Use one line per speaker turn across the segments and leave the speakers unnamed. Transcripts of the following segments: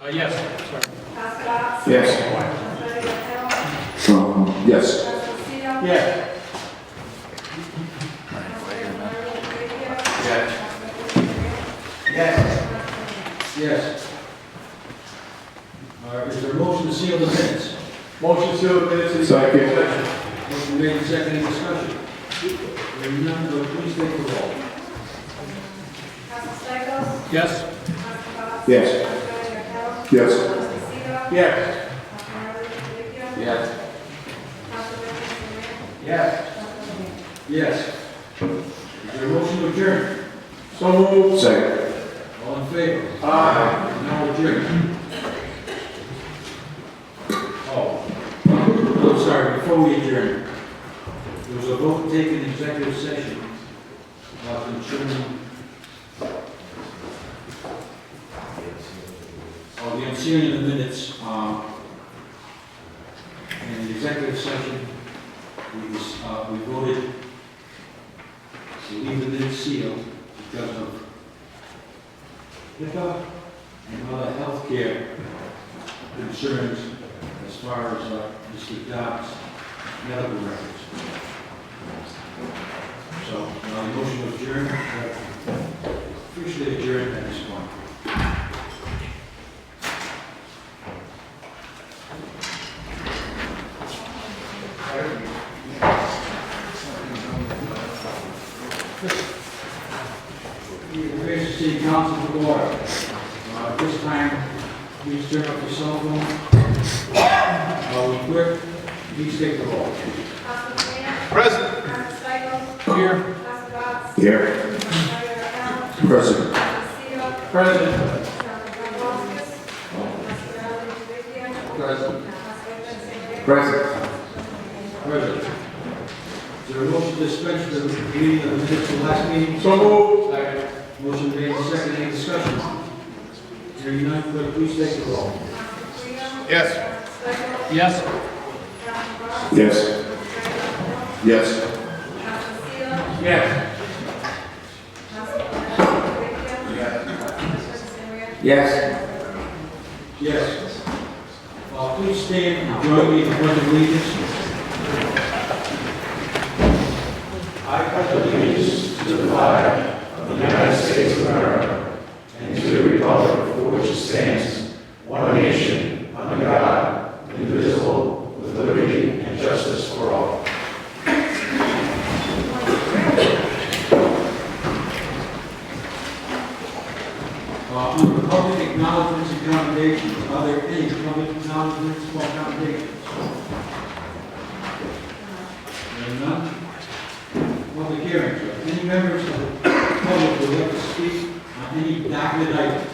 Uh, yes, sorry.
Council Box?
Yes.
Council Hill?
Um, yes.
Council Seal?
Yes.
Council Martin Trujillo?
Yes.
Council
Yes.
Rivera?
Yes.
All right, is there a motion to seal the minutes?
Motion to admit to.
Second.
Motion made and seconded, discussion. Hearing none, will you please take the roll.
Council Stichels?
Yes.
Council Box?
Yes.
Council Hill?
Yes.
Council Seal?
Yes.
Council Martin Trujillo?
Yes.
Council Rivera?
Yes.
Council Hill?
Yes. Is there a motion to adjourn?
So moved.
Second.
All in favor?
Aye.
Now adjourn. Oh, I'm sorry, before we adjourn, there was a vote taken in executive session about ensuring Oh, the ensuing of the minutes, um, in the executive session, we was, uh, we voted to leave the minutes sealed because of HIPAA uh, and other healthcare concerns as far as uh, Mr. Dobbs' medical records. So, uh, motion to adjourn, uh, officially adjourned at this point. Mr. City Council for order. Uh, at This time, please turn up your cell phone. Uh, Clerk, please take the roll.
Council Graham?
Present.
Council Stichels?
Here.
Council Box?
Here.
Council Rivera?
Present.
Council Seal?
President.
Council Voskis? Council Martin Trujillo?
Present.
Council Rivera?
Present.
President, is there a motion to dispense with the reading of the minutes of last meeting?
So moved.
Motion made, and seconded, any discussion? Hearing none, clerk, please take the roll.
Yes.
Yes.
Yes. Yes.
Yes.
Yes.
Yes. Uh, Please stand and join me in the pledge of allegiance. Uh, Under public acknowledgements and commendations, are there any public acknowledgements or commendations? There are none. Public hearings, Are any members of the public who would like to speak on any document item?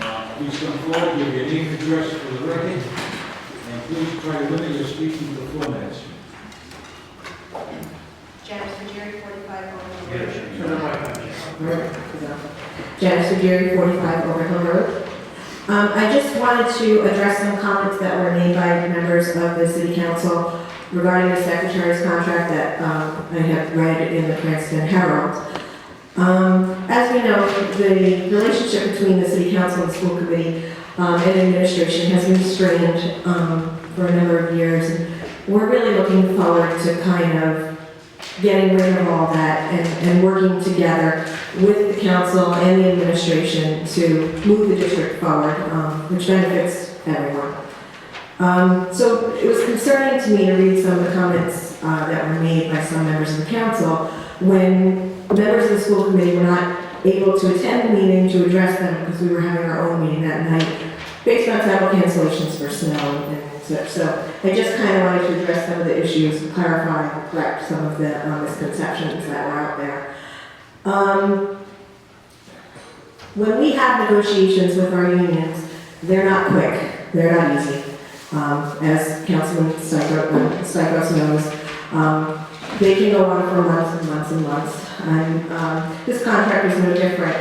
Uh, Please come forward, give your name and address for the record, and please try to limit your speaking to four minutes.
Janice Jerry, 45 Old
Janice Gary, 45 Over Hill Road. Um, I just wanted to address some comments that were made by members of the city council regarding the secretary's contract that um, I have read in the Princeton Herald. Um, As we know, the relationship between the city council and school committee um, and administration has been strained um, for a number of years. And We're really looking forward to kind of getting rid of all that and and working together with the council and the administration to move the district forward, um, which benefits everyone. Um, So it was concerning to me to read some of the comments uh, that were made by some members of the council when members of the school committee were not able to attend the meeting to address them because we were having our own meeting that night based on travel cancellations for snow and such. So I just kind of wanted to address some of the issues, clarify, correct some of the um, misconceptions that were out there. Um, When we have negotiations with our unions, they're not quick, they're not easy. Um, As Councilman Stichels knows, um, they can go on for months and months and months. And um, this contract is no different.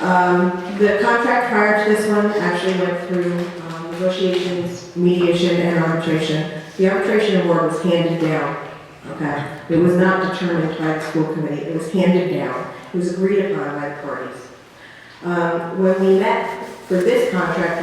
Um, The contract prior to this one actually went through um, negotiations, mediation, and arbitration. The arbitration award was handed down, okay? It was not determined by the school committee, it was handed down. It was agreed upon by the parties. Um, When we met for this contract,